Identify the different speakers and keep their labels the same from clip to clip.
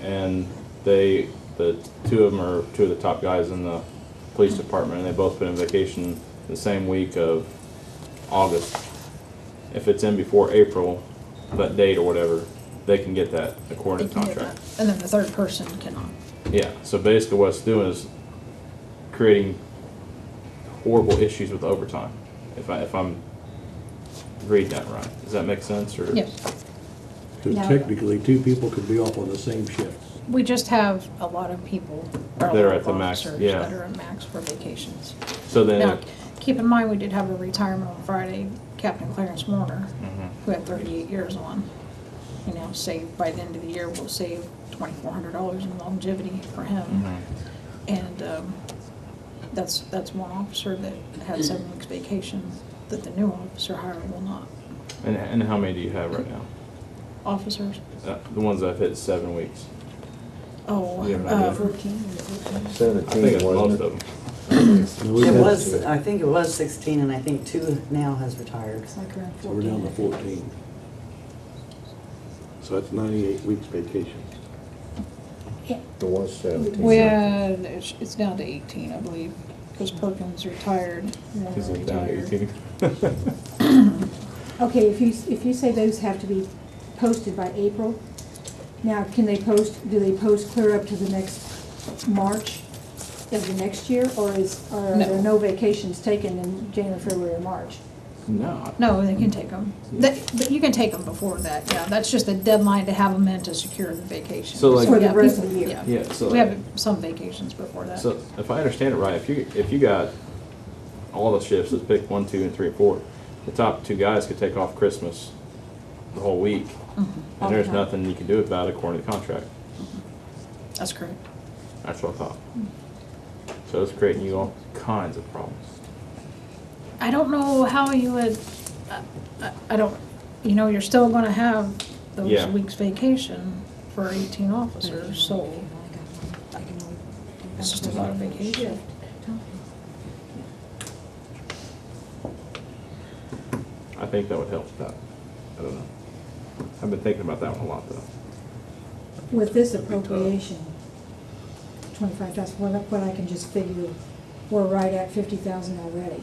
Speaker 1: and they, the two of them are two of the top guys in the police department, and they both been on vacation the same week of August. If it's in before April, that date or whatever, they can get that according
Speaker 2: They
Speaker 1: to
Speaker 2: can do
Speaker 1: contract.
Speaker 2: that. And then the third person cannot.
Speaker 1: Yeah, so basically what it's doing is creating horrible issues with overtime, if I, if I'm reading that right. Does that make sense, or?
Speaker 2: Yes,
Speaker 3: Because
Speaker 2: No.
Speaker 3: technically, two people could be off on the same shift.
Speaker 2: we just have a lot of people, or a
Speaker 1: That are
Speaker 2: lot
Speaker 1: at
Speaker 2: of
Speaker 1: the max,
Speaker 2: officers
Speaker 1: yeah.
Speaker 2: that are at max for vacations.
Speaker 1: So
Speaker 2: Now,
Speaker 1: then,
Speaker 2: keep in mind, we did have a retirement on Friday, Captain Clarence Warner,
Speaker 1: Mhm.
Speaker 2: who had thirty-eight years on. You know, saved, by the end of the year, we'll save twenty-four hundred dollars in longevity for him.
Speaker 1: Mhm.
Speaker 2: And, um, that's, that's one officer that had seven weeks vacation that the new officer hired will not.
Speaker 1: and, and how many do you have right now?
Speaker 2: Officers,
Speaker 1: Uh, The ones I've hit seven weeks.
Speaker 2: oh,
Speaker 4: uh,
Speaker 1: You have an idea?
Speaker 2: um,
Speaker 1: I think
Speaker 5: Seventeen,
Speaker 1: it's most
Speaker 5: wasn't it?
Speaker 1: of them.
Speaker 3: And we've
Speaker 6: It
Speaker 3: had-
Speaker 6: was, I think it was sixteen, and I think two now has retired.
Speaker 2: like around
Speaker 3: So we're down to fourteen.
Speaker 7: So that's ninety-eight weeks vacation.
Speaker 5: It was seventeen.
Speaker 2: Well, it's it's down to eighteen, I believe, because Perkins retired. Warner
Speaker 1: Is it down to
Speaker 2: retired.
Speaker 1: 18?
Speaker 4: Okay, if you, if you say those have to be posted by April, now, can they post, do they post clear up to the next March of the next year? Or is, are
Speaker 2: No.
Speaker 4: there no vacations taken in January, February, or March?
Speaker 1: No.
Speaker 2: No, they can take them. That, but you can take them before that, yeah, that's just a deadline to have them in to secure the vacation.
Speaker 1: So, like-
Speaker 2: we
Speaker 4: For the
Speaker 2: have
Speaker 4: rest
Speaker 2: people-
Speaker 4: of the year.
Speaker 2: Yeah,
Speaker 1: Yeah, so.
Speaker 2: we have some vacations before that.
Speaker 1: So if I understand it right, if you, if you got all the shifts, let's pick one, two, and three, and four, the top two guys could take off Christmas the whole week.
Speaker 2: Mm-hmm.
Speaker 1: And there's
Speaker 4: Okay.
Speaker 1: nothing you can do about it according to the contract.
Speaker 2: That's correct.
Speaker 1: That's what I thought. So it's creating you all kinds of problems.
Speaker 2: I don't know how you would, I- I, I don't, you know, you're still gonna have those
Speaker 1: Yeah.
Speaker 2: weeks vacation for eighteen officers, so it's just a lot of vacation.
Speaker 1: I think that would help with that. I don't know. I've been thinking about that one a lot though.
Speaker 4: With this appropriation, twenty-five thousand, what, I- what I can just figure, we're right at fifty thousand already.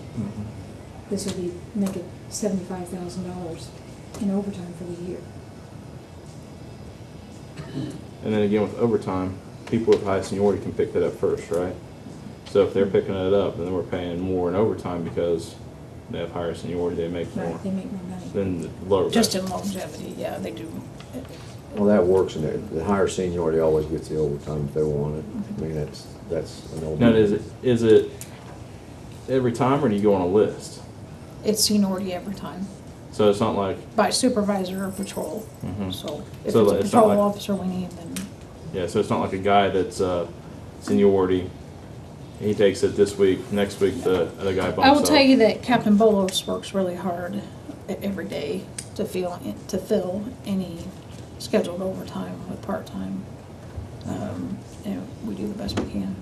Speaker 4: This would be, make it seventy-five thousand dollars in overtime for the year.
Speaker 1: And then again, with overtime, people with high seniority can pick that up first, right? So if they're picking it up, then we're paying more in overtime because they have higher seniority, they make more
Speaker 4: Right, they make more money.
Speaker 1: than the lower
Speaker 2: Just
Speaker 1: guys.
Speaker 2: in longevity, yeah, they do.
Speaker 5: Well, that works in there. The higher seniority always gets the overtime if they want it. I mean, that's, that's an old.
Speaker 1: Now, is it, is it every time or do you go on a list?
Speaker 2: It's seniority every time
Speaker 1: So it's not like,
Speaker 2: by supervisor or patrol.
Speaker 1: Mhm.
Speaker 2: So if it's
Speaker 1: So
Speaker 2: a
Speaker 1: it's not
Speaker 2: patrol
Speaker 1: like-
Speaker 2: officer we need, then
Speaker 1: yeah, so it's not like a guy that's, uh, seniority, he takes it this week, next week the other guy bumps up.
Speaker 2: I will tell you that Captain Bolos works really hard e- every day to feel, to fill any scheduled overtime with part-time. Um, And we do the best we can.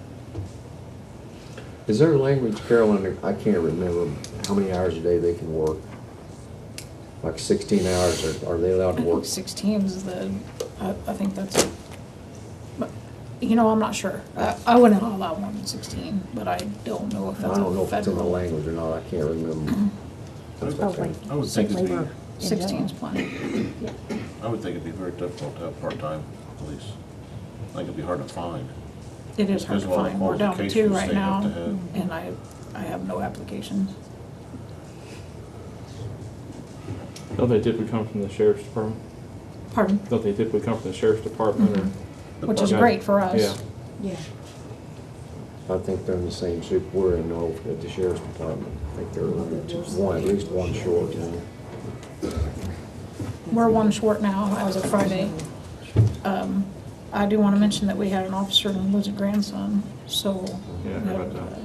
Speaker 5: Is there language, Carolyn, I can't remember how many hours a day they can work? Like sixteen hours, are, are they
Speaker 2: I
Speaker 5: allowed to
Speaker 2: think
Speaker 5: work?
Speaker 2: sixteen is the, I, I think that's, but, you know, I'm not sure. I, I wouldn't allow more than sixteen, but I don't know if
Speaker 5: I
Speaker 2: that's
Speaker 5: don't know if it's in the
Speaker 2: federal.
Speaker 5: language or not. I can't remember. That's
Speaker 8: Oh,
Speaker 5: okay.
Speaker 8: wait. I would think it'd be,
Speaker 4: Labor in general.
Speaker 2: Sixteen's plenty.
Speaker 8: I would think it'd be very difficult to have part-time police. I think it'd be hard to find.
Speaker 2: It is hard to
Speaker 8: There's a lot of
Speaker 2: find. We're down to two
Speaker 8: qualifications
Speaker 2: right
Speaker 8: they
Speaker 2: now,
Speaker 8: have to have.
Speaker 2: and I, I have no applications.
Speaker 1: Don't they typically come from the sheriff's department?
Speaker 2: Pardon?
Speaker 1: Don't they typically come from the sheriff's department or?
Speaker 8: The
Speaker 2: Which is
Speaker 8: part-
Speaker 2: great Mm-hmm. for
Speaker 1: Yeah.
Speaker 2: us.
Speaker 4: Yeah,
Speaker 5: I think they're in the same soup we're in over at the sheriff's department. I think they're one, at least one short.
Speaker 2: We're one short now, as of Friday. Um, I do want to mention that we had an officer lose a grandson, so.
Speaker 1: Yeah, I heard about that.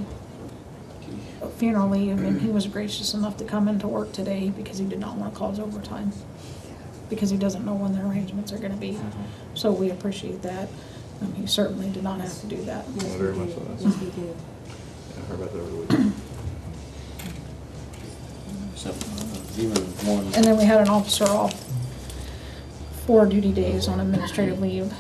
Speaker 2: a Funeral leave, and he was gracious enough to come into work today because he did not want to cause overtime. Because he doesn't know when the arrangements are gonna be, so we appreciate that. Um, he certainly did not have to do that.
Speaker 4: yes,
Speaker 1: Very
Speaker 4: we
Speaker 1: much
Speaker 4: do.
Speaker 1: so, that's-
Speaker 4: Yes, we do.
Speaker 1: I heard about that over the weekend.
Speaker 8: Except even one.
Speaker 2: And then we had an officer off four duty days on administrative leave,